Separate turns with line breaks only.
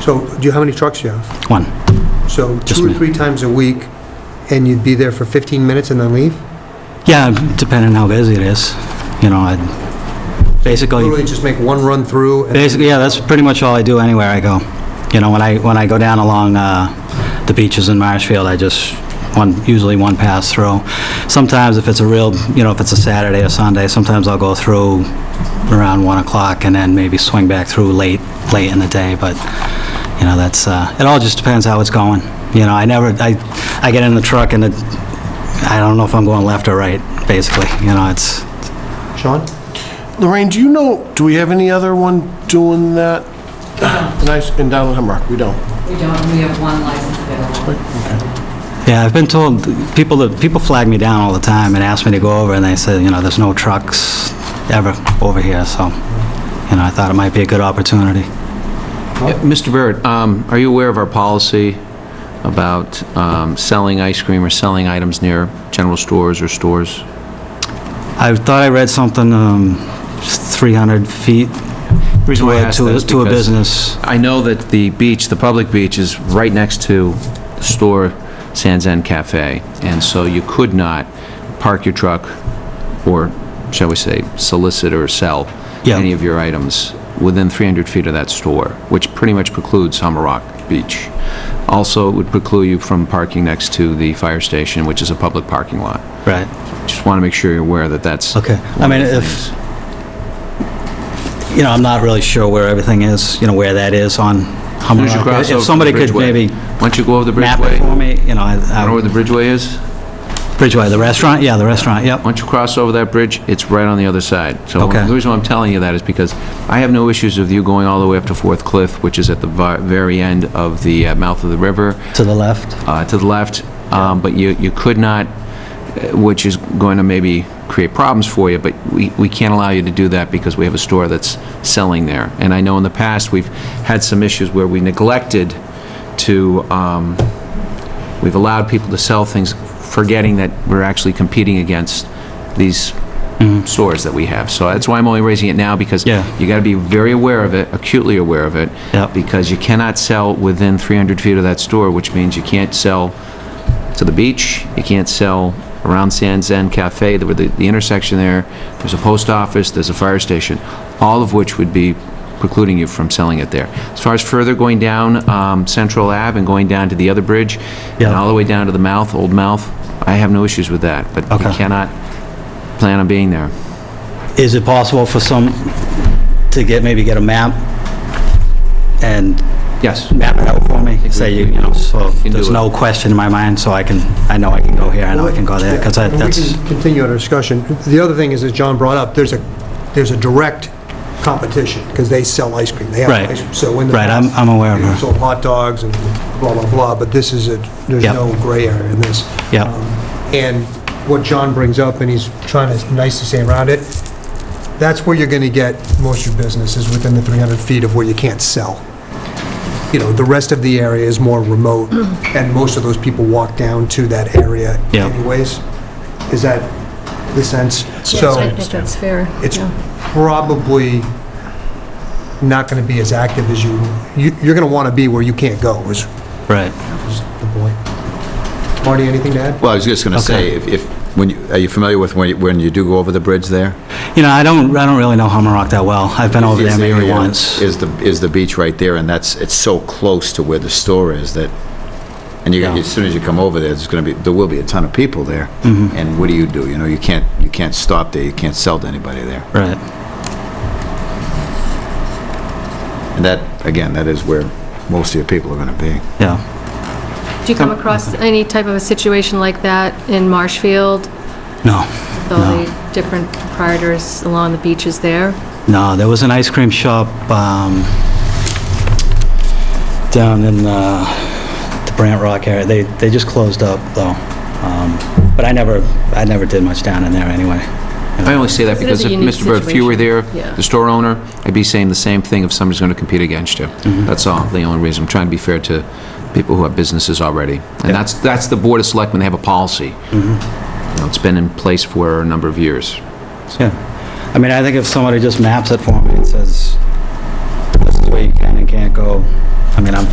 So do you, how many trucks you have?
One.
So
Just
two or
me.
three times a week, and you'd be there for 15 minutes and then leave?
Yeah, depending how busy it is, you know, I, basically,
Literally just make one run through? and-
Oh, basically, yeah, that's pretty much all I do anywhere I go. You know, when I, when I go down along, uh, the beaches in Marshfield, I just, one, usually one pass through. Sometimes if it's a real, you know, if it's a Saturday or Sunday, sometimes I'll go through around 1 o'clock and then maybe swing back through late, late in the day, but, you know, that's, uh, it all just depends how it's going. You know, I never, I, I get in the truck and it, I don't know if I'm going left or right, basically, you know, it's,
Sean?
Lorraine, do you know, do we have any other one doing that? Nice, in down in Hemrock, we don't.
We don't, we have one license available.
Yeah, I've been told, people, that- people flag me down all the time and ask me to go over, and they say, you know, there's no trucks ever over here, so, you know, I thought it might be a good opportunity.
Yeah, Mr. Barrett, um, are you aware of our policy about um, selling ice cream or selling items near general stores or stores?
I thought I read something, um, 300 feet
Reason why
to
I
a-
ask
to
that
a,
is
to a
because-
business.
I know that the beach, the public beach, is right next to the store Sans End Cafe, and so you could not park your truck or, shall we say, solicit or sell
Yeah.
any of your items within 300 feet of that store, which pretty much precludes Hummer Rock Beach. Also, it would preclude you from parking next to the fire station, which is a public parking lot.
Right,
Just want to make sure you're aware that that's...
okay. I
one
mean,
of the
if,
things.
you know, I'm not really sure where everything is, you know, where that is on Hummer
As soon as you
Rock.
cross over
If
the
somebody could
bridgeway.
maybe
Why don't you go over the
map it
bridgeway?
for me, you know, I-
You know where
I,
the bridgeway is?
Bridgeway, the restaurant, yeah, the restaurant, yep.
Once you cross over that bridge, it's right on the other side. So
Okay.
the reason why I'm telling you that is because I have no issues with you going all the way up to Fourth Cliff, which is at the vi- very end of the uh, mouth of the river,
To the left?
uh, to the left, Um, but you, you could not, uh, which is going to maybe create problems for you, but we, we can't allow you to do that because we have a store that's selling there. And I know in the past, we've had some issues where we neglected to, um, we've allowed people to sell things, forgetting that we're actually competing against these stores that we have. So that's why I'm only raising it now, because
Yeah.
you got to be very aware of it, acutely aware of it,
Yep.
because you cannot sell within 300 feet of that store, which means you can't sell to the beach, you can't sell around Sands End Cafe, the- the the intersection there, there's a post office, there's a fire station, all of which would be precluding you from selling it there. As far as further going down um, Central Ave and going down to the other bridge, and
Yeah.
all the way down to the mouth, Old Mouth, I have no issues with that, but you
Okay.
cannot plan on being there.
Is it possible for some, to get, maybe get a map and
Yes.
map it out for me? Say, you you know, so
Can do
there's
it.
no question in my mind, so I can, I know I can go here, I know I can go there, because
And We
that's,
can continue our discussion. The other thing is, as John brought up, there's a, there's a direct competition, because they sell ice cream. They have
Right.
ice cream. So in the
Right, I'm-
past,
I'm aware of
they
that.
sold hot dogs and blah, blah, blah, but this is a, there's
Yep.
no gray area in this.
Yep.
Um, And what John brings up, and he's trying to nicely say around it, that's where you're going to get most of your business, is within the 300 feet of where you can't sell. You know, the rest of the area is more remote, and most of those people walk down to that area
Yeah.
anyways. Is that the sense?
Yes, I
So
think that's fair.
it's
yeah.
probably not going to be as active as you, you- you're going to want to be where you can't go, is
right.
is the point. Marty, anything to add?
Well, I was just going to say,
Okay.
if, if, when, you- are you familiar with when you- when you do go over the bridge there?
You know, I don't, I don't really know Hummer Rock that well. I've been over
Is
there maybe
area-
once.
Is the, is the beach right there, and that's, it's so close to where the store is that, and you,
Yeah.
as soon as you come over there, there's going to be, there will be a ton of people there.
Mm-hmm.
And what do you do? You know, you can't, you can't stop there, you can't sell to anybody there.
Right,
And that, again, that is where most of your people are going to be.
yeah.
Do you come across any type of a situation like that in Marshfield,
No,
with all the different proprietors along the beaches there?
no, there was an ice cream shop um, down in uh, the Brant Rock area. They, they just closed up, though. Um, But I never, I never did much down in there anyway.
I only say that
It is
because
a
if,
unique
Mr. Bird, if you were there,
situation. Yeah.
the store owner, I'd be saying the same thing if somebody's going to compete against you. That's all, the only reason. I'm trying to be fair to people who have businesses already. And that's, that's the Board of Selectmen, they have a policy. You know, It's been in place for a number of years.
Yeah. I mean, I think if somebody just maps it for me and says, this is where you can and can't go, I mean, I'm